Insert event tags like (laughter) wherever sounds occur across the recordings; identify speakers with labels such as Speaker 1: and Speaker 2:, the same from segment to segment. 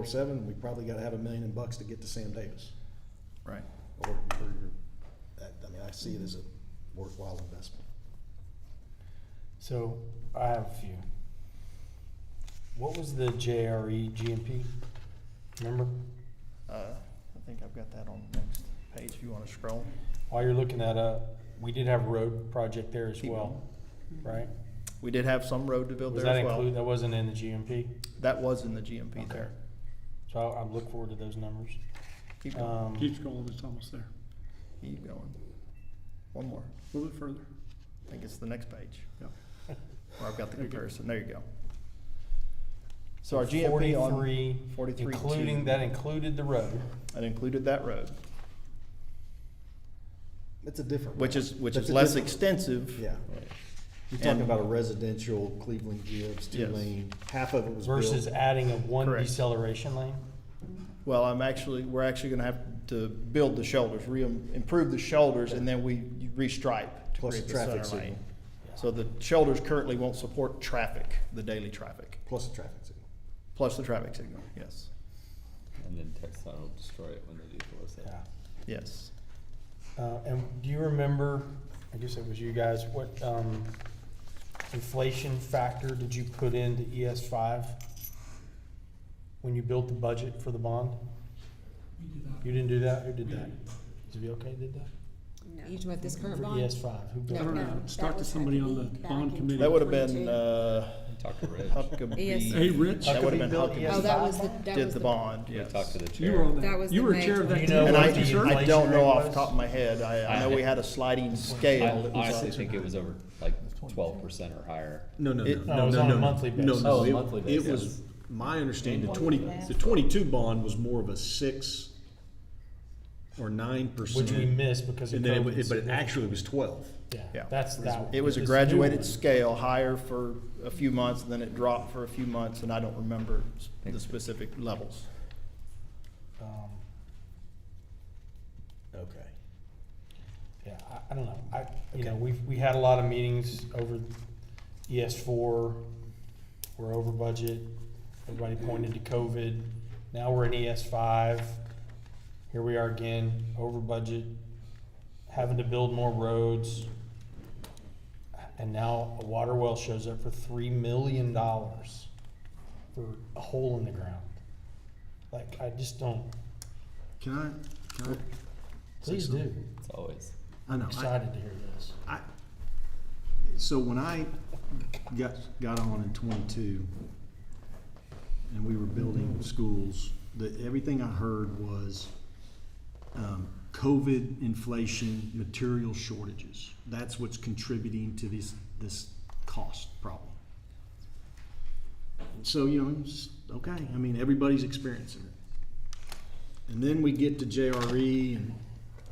Speaker 1: or seven, we probably gotta have a million bucks to get to Sam Davis.
Speaker 2: Right.
Speaker 1: Or, or, your- that, I mean, I see it as a worthwhile investment.
Speaker 3: So I have a few. What was the E JRE GMP? Remember?
Speaker 2: Uh, I think I've got that on the next page if you want to scroll.
Speaker 3: While you're looking that up, we did have a road project there as
Speaker 2: Keep
Speaker 3: well, right?
Speaker 2: We did have some road to build
Speaker 3: Was
Speaker 2: there
Speaker 3: that
Speaker 2: as well.
Speaker 3: include, that wasn't in the GMP?
Speaker 2: That was in the GMP
Speaker 3: Okay.
Speaker 2: there.
Speaker 3: So I, I look forward to those numbers.
Speaker 2: Keep going,
Speaker 3: Um,
Speaker 4: Keeps going, it's almost there.
Speaker 2: keep going. One more.
Speaker 4: A little bit further.
Speaker 2: I think it's the next page (laughs)
Speaker 4: Yeah.
Speaker 2: where I've got the
Speaker 4: There you go.
Speaker 2: comparison. There you go. So our GMP on,
Speaker 3: 43,
Speaker 2: 43, two.
Speaker 3: Including, that included the road.
Speaker 2: that included that road,
Speaker 1: It's a different.
Speaker 2: which is, which
Speaker 1: That's
Speaker 2: is
Speaker 1: a
Speaker 2: less
Speaker 1: different-
Speaker 2: extensive.
Speaker 1: Yeah. You're talking
Speaker 2: And-
Speaker 1: about a residential Cleveland Gibbs, two
Speaker 2: Yes.
Speaker 1: lane, half of it was built.
Speaker 3: Versus adding a one
Speaker 2: Correct.
Speaker 3: deceleration lane?
Speaker 2: Well, I'm actually, we're actually gonna have to build the shoulders, re, improve the shoulders, and then we restripe to
Speaker 1: Plus
Speaker 2: create
Speaker 1: a
Speaker 2: the
Speaker 1: traffic
Speaker 2: center lane.
Speaker 1: signal,
Speaker 2: So the shoulders currently won't support traffic, the daily traffic,
Speaker 1: plus a traffic signal.
Speaker 2: plus the traffic signal, yes,
Speaker 5: And then Texan will destroy it when they do close it.
Speaker 3: Yeah.
Speaker 2: yes.
Speaker 3: Uh, and do you remember, I guess it was you guys, what, um, inflation factor did you put into ES five? When you built the budget for the bond? You didn't do that? Who did that? Did VOK did that?
Speaker 6: You talking about this current
Speaker 3: For
Speaker 6: bond?
Speaker 3: ES five, who
Speaker 4: I
Speaker 3: built
Speaker 4: don't
Speaker 3: it?
Speaker 6: No,
Speaker 4: know,
Speaker 6: that
Speaker 4: it's talked to
Speaker 6: was
Speaker 4: somebody on the
Speaker 6: Huckabee back
Speaker 4: bond
Speaker 6: in
Speaker 4: committee.
Speaker 2: That would have been,
Speaker 6: 22.
Speaker 2: uh,
Speaker 5: Talk to Rich.
Speaker 6: Yes.
Speaker 4: Hey,
Speaker 2: Huckabee,
Speaker 4: Rich,
Speaker 2: That would've
Speaker 3: Huckabee
Speaker 2: been
Speaker 3: built
Speaker 2: Huckabee.
Speaker 3: ES
Speaker 6: Oh, that was the,
Speaker 3: five?
Speaker 6: that
Speaker 2: uh, did
Speaker 6: was
Speaker 2: the bond, yes.
Speaker 5: We talk to the
Speaker 4: you were
Speaker 5: chair.
Speaker 4: on
Speaker 6: That
Speaker 4: that,
Speaker 6: was
Speaker 4: you
Speaker 6: the
Speaker 4: were chair
Speaker 6: major-
Speaker 4: of that.
Speaker 3: You
Speaker 4: team,
Speaker 3: know
Speaker 2: And I,
Speaker 3: what
Speaker 4: weren't
Speaker 3: the
Speaker 4: you, sir?
Speaker 2: I don't know off the
Speaker 3: was?
Speaker 2: top of my head, I, I know we had a sliding
Speaker 5: I
Speaker 2: scale. that was
Speaker 5: honestly
Speaker 2: up-
Speaker 5: think it was over like twelve percent or higher.
Speaker 7: No, no, no,
Speaker 2: It-
Speaker 7: no, no.
Speaker 3: No, it was on a
Speaker 7: no.
Speaker 3: monthly
Speaker 7: No,
Speaker 3: basis.
Speaker 7: no,
Speaker 5: Oh,
Speaker 7: it-
Speaker 5: monthly
Speaker 7: It
Speaker 5: basis.
Speaker 7: was, my understanding, the twenty, the twenty-two bond was more of a six or nine percent.
Speaker 3: Which we missed because of
Speaker 7: And then, it wa-
Speaker 3: COVID.
Speaker 7: it- but it actually was twelve.
Speaker 3: Yeah,
Speaker 2: Yeah.
Speaker 3: that's that. one.
Speaker 2: It was a
Speaker 3: This new
Speaker 2: graduated
Speaker 3: one.
Speaker 2: scale, higher for a few months, then it dropped for a few months, and I don't remember s- the specific levels.
Speaker 3: Um,
Speaker 1: Okay.
Speaker 3: Yeah, I, I don't know, I, you know, we've, we had a lot of meetings over ES four, we're over budget, everybody pointed to COVID, now we're in ES five, here we are again, over budget, having to build more roads, and now a water well shows up for three million dollars for a hole in the ground. Like, I just don't,
Speaker 4: Can I, can
Speaker 3: please do,
Speaker 5: It's always.
Speaker 4: I, I know, I-
Speaker 3: excited to hear this.
Speaker 4: I, so when I got, got on in twenty-two, and we were building schools, the, everything I heard was, um, COVID, inflation, material shortages. That's what's contributing to this, this cost problem. And so, you know, it's, okay, I mean, everybody's experiencing it. And then we get to JRE and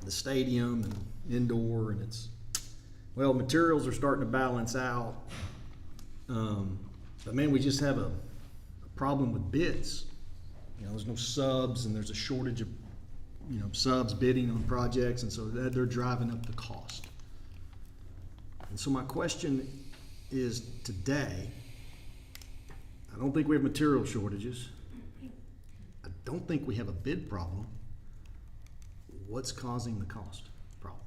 Speaker 4: the stadium and indoor, and it's, well, materials are starting to balance out. Um, but man, we just have a, a problem with bids. You know, there's no subs and there's a shortage of, you know, subs bidding on projects and so that they're driving up the cost. And so my question is today, I don't think we have material shortages. I don't think we have a bid problem. What's causing the cost problem?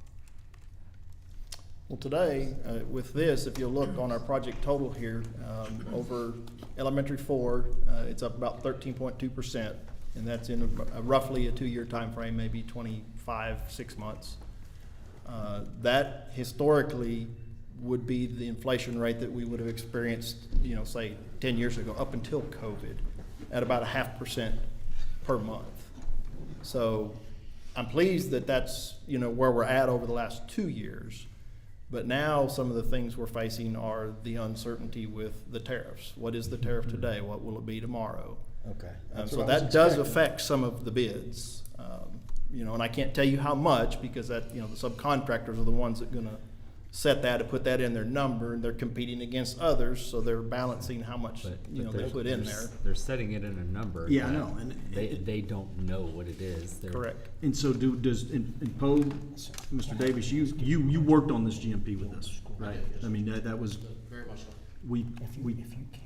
Speaker 2: Well, today, uh, with this, if you look on our project total here, um, over elementary four, uh, it's up about thirteen point two percent. And that's in a- roughly a two-year time frame, maybe twenty-five, six months. Uh, That historically would be the inflation rate that we would have experienced, you know, say, ten years ago, up until COVID, at about a half percent per month. So I'm pleased that that's, you know, where we're at over the last two years. But now some of the things we're facing are the uncertainty with the tariffs. What is the tariff today? What will it be tomorrow?
Speaker 1: Okay.
Speaker 2: Um,
Speaker 1: That's
Speaker 2: so
Speaker 1: what I was
Speaker 2: that does
Speaker 1: expecting.
Speaker 2: affect some of the bids, um, you know, and I can't tell you how much because that, you know, the subcontractors are the ones that gonna set that and put that in their number and they're competing against others, so they're balancing how much,
Speaker 8: But,
Speaker 2: you know,
Speaker 8: but
Speaker 2: they
Speaker 8: they're,
Speaker 2: put in
Speaker 8: they're s-
Speaker 2: there.
Speaker 8: They're setting it in a number.
Speaker 4: Yeah, I
Speaker 8: that
Speaker 4: know, and
Speaker 8: They,
Speaker 4: it-
Speaker 8: they don't know what it is. They're-
Speaker 2: Correct.
Speaker 4: And so do, does, and and Poe, Mr. Davis, you, you, you worked on this GMP with us, right? I mean, that, that was, we,
Speaker 3: If you,
Speaker 4: we,
Speaker 3: if you can.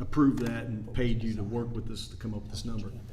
Speaker 8: approved that and paid you to work with us to come up with this number.